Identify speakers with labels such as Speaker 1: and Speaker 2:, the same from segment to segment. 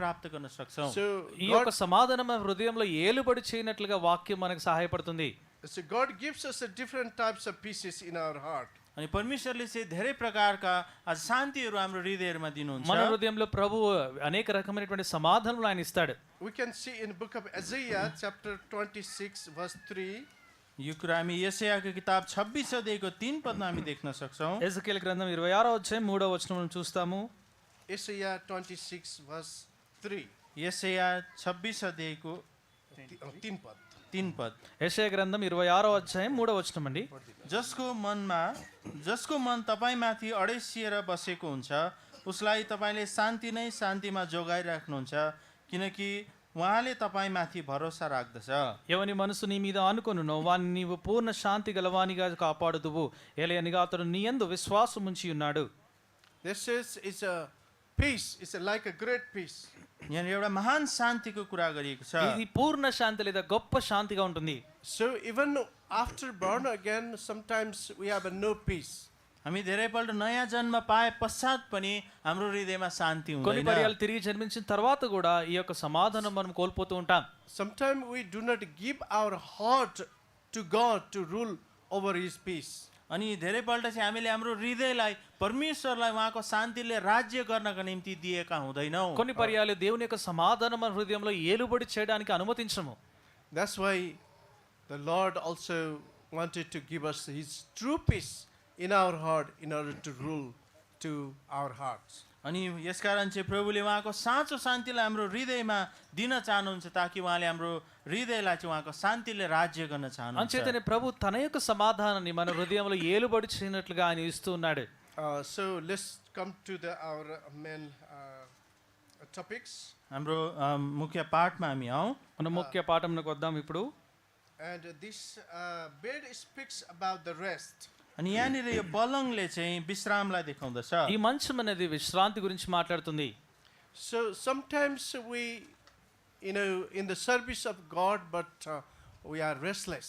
Speaker 1: प्राप्त गर्न सक्छौँ
Speaker 2: So
Speaker 3: ఈ యొక్క
Speaker 2: God,
Speaker 3: సమాధానం మన హృదయంలో ఏలుబడి చేయనట్లుగా వాక్యం మనకు సహాయపడుతుంది
Speaker 2: so God gives us a different types of pieces in our heart.
Speaker 1: अनि परमेश्वरले चाहिँ धेरै प्रकारका आज शान्तिहरू हाम्रो हृदयहरूमा दिनुहुन्छ
Speaker 3: మన హృదయంలో ప్రభు అనేక రకమైనటువంటి సమాధానములు ఆయన ఇస్తాడు
Speaker 2: We can see in the book of Isaiah chapter 26 verse 3.
Speaker 1: यो कुरा हामी यसयाको किताब छब्बिस अध्यायको तिन पदमा हामी देख्न सक्छौँ
Speaker 3: ఎజకేల్ గ్రంథం ఇరవై ఆరో అధ్యాయం మూడో వచనం మనం చూస్తాము
Speaker 2: Isaiah 26 verse 3.
Speaker 1: यसया छब्बिस अध्यायको
Speaker 2: Ti- oh, Tin pad.
Speaker 1: तिन पद
Speaker 3: యెషయా గ్రంథం ఇరవై ఆరో అధ్యాయం మూడో వచనం అండి
Speaker 1: जसको मनमा जसको मन तपाईँमाथि अडेसिएर बसेको हुन्छ उसलाई तपाईँले शान्ति नै शान्तिमा जोगाइराख्नुहुन्छ किनकि उहाँले तपाईँमाथि भरोसा राख्दछ
Speaker 3: ఎవని మనసు నీ మీద ఆనుకొనునో వాని నీవు పూర్ణ శాంతి గలవానిగా కాపాడుదువు ఏలయనగా అతడు నీ యందు విశ్వాసం ఉంచి ఉన్నాడు
Speaker 2: This is it's a peace. It's a, like a great peace.
Speaker 1: यहाँनिर एउटा महान शान्तिको कुरा गरिएको छ
Speaker 3: ఇది పూర్ణ శాంతి లేదా గొప్ప శాంతిగా ఉంటుంది
Speaker 2: So even after born again, sometimes we have a no peace.
Speaker 1: हामी धेरैपल्ट नयाँ जन्म पाए पश्चात पनि हाम्रो हृदयमा शान्ति
Speaker 3: కొన్ని
Speaker 1: हुँदैन
Speaker 3: పర్యాలు తిరిగి జన్మించిన తర్వాత కూడా ఈ యొక్క సమాధానం మనం కోల్పోతూ ఉంటాం
Speaker 2: Sometimes we do not give our heart to God to rule over His peace.
Speaker 1: अनि धेरैपल्ट चाहिँ हामीले हाम्रो हृदयलाई परमेश्वरलाई उहाँको शान्तिले राज्य गर्नका निम्ति दिएका हुँदैनौँ
Speaker 3: కొన్ని పర్యాలు దేవుని యొక్క సమాధానం మన హృదయంలో ఏలుబడి చేయడానికి అనుమతించము
Speaker 2: That's why the Lord also wanted to give us His true peace in our heart in order to rule to our hearts.
Speaker 1: अनि यसकारण चाहिँ प्रभुले उहाँको साँचो शान्तिलाई हाम्रो हृदयमा दिन चाहनुहुन्छ ताकि उहाँले हाम्रो हृदयलाई चाहिँ उहाँको शान्तिले राज्य गर्न चाहनुहुन्छ
Speaker 3: అంచేతనే ప్రభు తన యొక్క సమాధానాన్ని మన హృదయంలో ఏలుబడి చేయనట్లుగా ఆయన ఇస్తూ ఉన్నాడు
Speaker 2: Uh, so let's come to the, our uh, main uh, topics.
Speaker 1: हाम्रो अम, ముఖ్య पाठमा हामी आउँ
Speaker 3: మన ముఖ్య పాఠంలోకి వద్దాం ఇప్పుడు
Speaker 2: And this uh, bed speaks about the rest.
Speaker 1: अनि यहाँनिर यो बलङले चाहिँ विश्रामलाई देखाउँदछ
Speaker 3: ఈ మంచం అనేది విశ్రాంతి గురించి మాట్లాడుతుంది
Speaker 2: So sometimes we, you know, in the service of God, but uh, we are restless.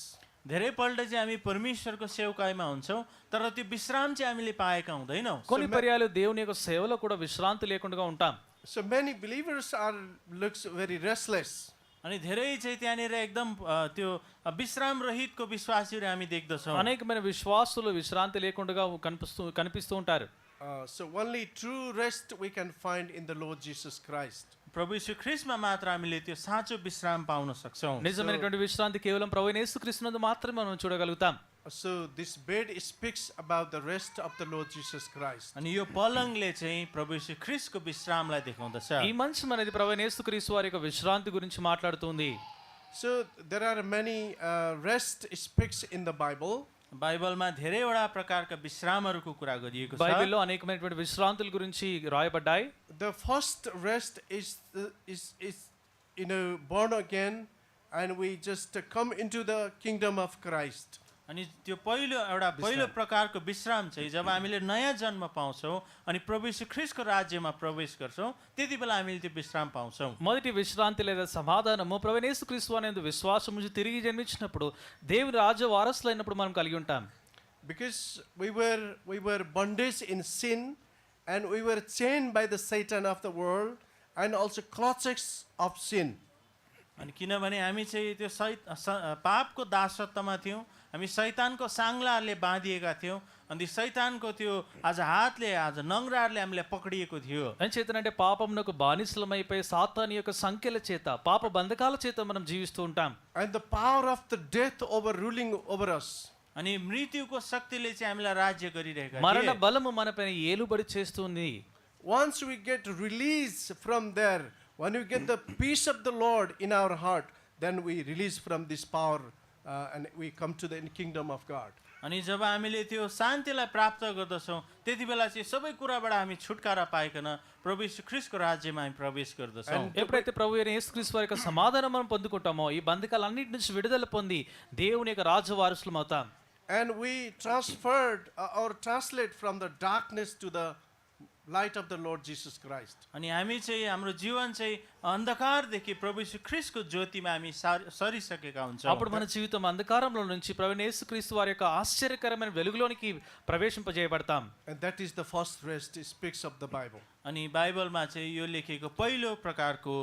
Speaker 1: धेरैपल्ट चाहिँ हामी परमेश्वरको सेवकाईमा हुन्छौँ तर त्यो विश्राम चाहिँ हामीले पाएका हुँदैनौँ
Speaker 3: కొన్ని పర్యాలు దేవుని యొక్క సేవలో కూడా విశ్రాంతి లేకుండా ఉంటాం
Speaker 2: So many believers are looks very restless.
Speaker 1: अनि धेरै चाहिँ त्यहाँनिर एकदम अ, त्यो विश्राम रहितको विश्वासीहरू हामी देख्दछौँ
Speaker 3: అనేకమైన విశ్వాసులు విశ్రాంతి లేకుండా కనిపిస్తూ కనిపిస్తూ ఉంటారు
Speaker 2: Uh, so only true rest we can find in the Lord Jesus Christ.
Speaker 1: प्रभु श्री ख्रिस्टमा मात्र हामीले त्यो साँचो विश्राम पाउन सक्छौँ
Speaker 3: నిజమైనటువంటి విశ్రాంతి కేవలం ప్రభు యేసుక్రీస్తునందు మాత్రమే మనం చూడగలుగుతాం
Speaker 2: Uh, So this bed speaks about the rest of the Lord Jesus Christ.
Speaker 1: अनि यो पलङले चाहिँ प्रभु श्री ख्रिस्टको विश्रामलाई देखाउँदछ
Speaker 3: ఈ మంచం అనేది ప్రభు యేసుక్రీస్తు వారి యొక్క విశ్రాంతి గురించి మాట్లాడుతుంది
Speaker 2: So there are many uh, rest speaks in the Bible.
Speaker 1: बाइबलमा धेरैवटा प्रकारका विश्रामहरूको कुरा गरिएको छ
Speaker 3: బైబిల్లో అనేకమైనటువంటి విశ్రాంతుల గురించి రాయబడ్డాయి
Speaker 2: The first rest is the, is is you know born again, and we just uh, come into the kingdom of Christ.
Speaker 1: अनि त्यो पहिलो एउटा पहिलो प्रकारको विश्राम चाहिँ जब हामीले नयाँ जन्म पाउँछौँ अनि प्रभु श्री ख्रिस्टको राज्यमा प्रवेश गर्छौँ त्यति बेला हामीले त्यो विश्राम पाउँछौँ
Speaker 3: మొదటి విశ్రాంతి లేదా సమాధానము ప్రభు యేసుక్రీస్తు అనేది విశ్వాసం నుంచి తిరిగి జన్మించినప్పుడు దేవుని రాజ్య వారసులైనప్పుడు మనం కలిగి ఉంటాం
Speaker 2: Because we were we were bondage in sin, and we were chained by the Satan of the world, and also clutches of sin.
Speaker 1: अनि किनभने हामी चाहिँ त्यो सै स- पापको दासत्वमा थियौँ हामी शैतानको साङ्लाहरूले बाँधिएका थियौँ अनि शैतानको त्यो आज हातले आज नङ्राहरूले हामीलाई पक्रिएको थियो
Speaker 3: అని చేతనంటే పాపమునకు బానిసలమైపోయి సాతాని యొక్క సంఖ్యల చేత పాప బంధకాల చేత మనం జీవిస్తూ ఉంటాం
Speaker 2: and the power of the death overruling over us.
Speaker 1: अनि मृत्युको शक्तिले चाहिँ हामीलाई राज्य गरिरहेका
Speaker 3: మరణ
Speaker 1: थिए
Speaker 3: బలము మనపైన ఏలుబడి చేస్తుంది
Speaker 2: Once we get release from there, when we get the peace of the Lord in our heart, then we release from this power uh, and we come to the kingdom of God.
Speaker 1: अनि जब हामीले त्यो शान्तिलाई प्राप्त गर्दछौँ त्यति बेला चाहिँ सबै कुराबाट हामी छुटकारा पाइकन प्रभु यीशु ख्रिस्टको राज्यमा हामी प्रवेश गर्दछौँ
Speaker 3: ఎప్పుడైతే ప్రభు అయిన యేసుక్రీస్తు వారి యొక్క సమాధానం మనం పొందుకుంటామో ఈ బంధకాలన్నిటి నుంచి విడుదల పొంది దేవుని యొక్క రాజ్య వారసులం అవుతాం
Speaker 2: And we transferred uh, or translate from the darkness to the light of the Lord Jesus Christ.
Speaker 1: अनि हामी चाहिँ हाम्रो जीवन चाहिँ अन्धकारदेखि प्रभु श्री ख्रिसको ज्योतिमा हामी सार सरिसकेका हुन्छौँ
Speaker 3: అప్పుడు మన జీవితం అంధకారంలో నుంచి ప్రవీణ యేసుక్రీస్తు వారి యొక్క ఆశ్చర్యకరమైన వెలుగులోనికి ప్రవేశింపజేయబడతాం
Speaker 2: And that is the first rest, it speaks of the Bible.
Speaker 1: अनि बाइबलमा चाहिँ यो लेखिएको पहिलो प्रकारको